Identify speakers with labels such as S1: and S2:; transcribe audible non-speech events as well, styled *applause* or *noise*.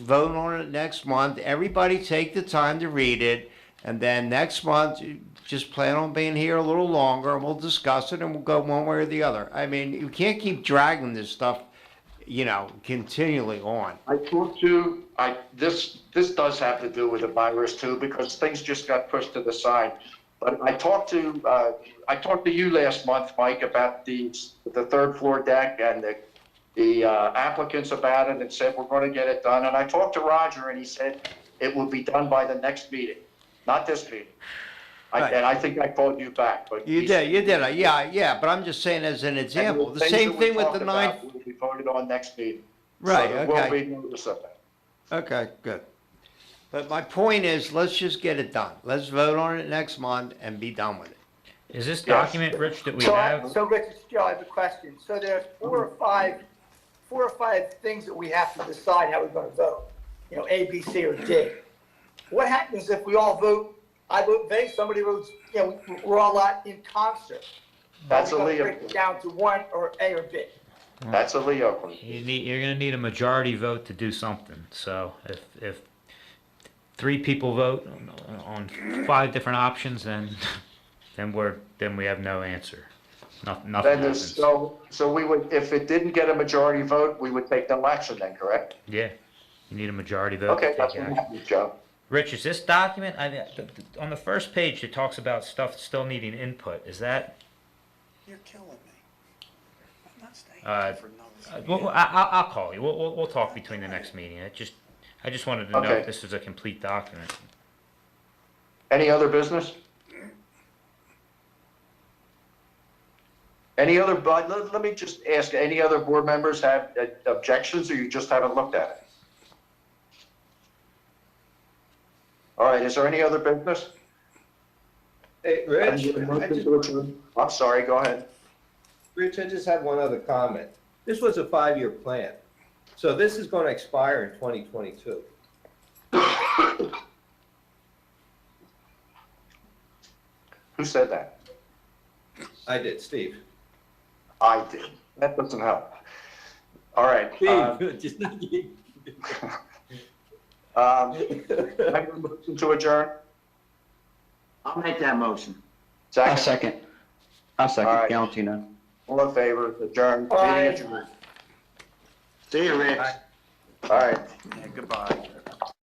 S1: vote on it next month. Everybody take the time to read it. And then next month, you just plan on being here a little longer and we'll discuss it and we'll go one way or the other. I mean, you can't keep dragging this stuff, you know, continually on.
S2: I talked to, I, this, this does have to do with the virus too, because things just got pushed to the side. But I talked to, uh, I talked to you last month, Mike, about the, the third floor deck and the, the uh, applicants about it and said, we're gonna get it done. And I talked to Roger and he said, it will be done by the next meeting, not this meeting. I,
S1: Right.
S2: and I think I called you back, but.
S1: You
S2: he
S1: did, you
S2: said-
S1: did, it. yeah, yeah, but I'm just saying as an
S2: And
S1: example, the
S2: things
S1: same
S2: that we
S1: thing with
S2: talked
S1: the
S2: about
S1: nine,
S2: Will be voted on next meeting.
S1: Right,
S2: So there will
S1: okay.
S2: be notice of that.
S1: okay, good. But my point is, let's just get it done. Let's vote on it next month and be done with it.
S3: Is this
S2: Yes.
S3: document, Rich, that we
S4: So, I-
S3: have?
S4: so Rich, it's Joe, I have a question. So there's four or five, four or five things that we have to decide how we're gonna vote. You know, A, B, C, or D. What happens if we all vote, I vote B, somebody votes, you know, we- we're all out in concert?
S2: That's
S4: Are
S2: a
S4: we gonna
S2: Leo,
S4: break it Down to one or A or B?
S2: that's a Leo question.
S3: You need, you're gonna need a majority vote to do something, so if, if three people vote on- on five different options, then, *laughs* then we're, then we have no answer. Nothing, nothing
S2: Then there's,
S3: happens.
S2: so, so we would, if it didn't get a majority vote, we would take no action then, correct?
S3: Yeah, you need a majority vote to
S2: Okay, that's
S3: take
S2: what
S3: action.
S2: happened, Joe.
S3: Rich, is this document, I, mean, th- th- on the first page, it talks about stuff still needing input, is that,
S5: You're killing me. I'm not staying
S3: Uh,
S5: here for
S3: uh,
S5: another.
S3: well, I, I'll, I'll call you, we'll, we'll, we'll talk between the next meeting, it just, I just wanted to know
S2: Okay.
S3: if this is a complete document.
S2: Any other business? Any other, but let, let me just ask, any other board members have uh, objections or you just haven't looked at it? All right, is there any other business?
S6: Hey, Rich, I just,
S2: I'm sorry, go ahead.
S6: Rich, I just had one other comment. This was a five-year plan, so this is going to expire in 2022.
S2: Who said that?
S6: I did, Steve.
S2: I did. That doesn't help. All right.
S6: *laughs*
S2: uh,
S6: just not you.
S2: *laughs* Um, I have a motion to adjourn.
S7: I'll make that motion.
S2: Second.
S7: second. I'll
S2: All right.
S7: second, Valentino.
S2: All in favor, adjourn.
S4: Aye.
S2: Meeting adjourned.
S7: See you, Rich.
S2: All right.
S7: Goodbye.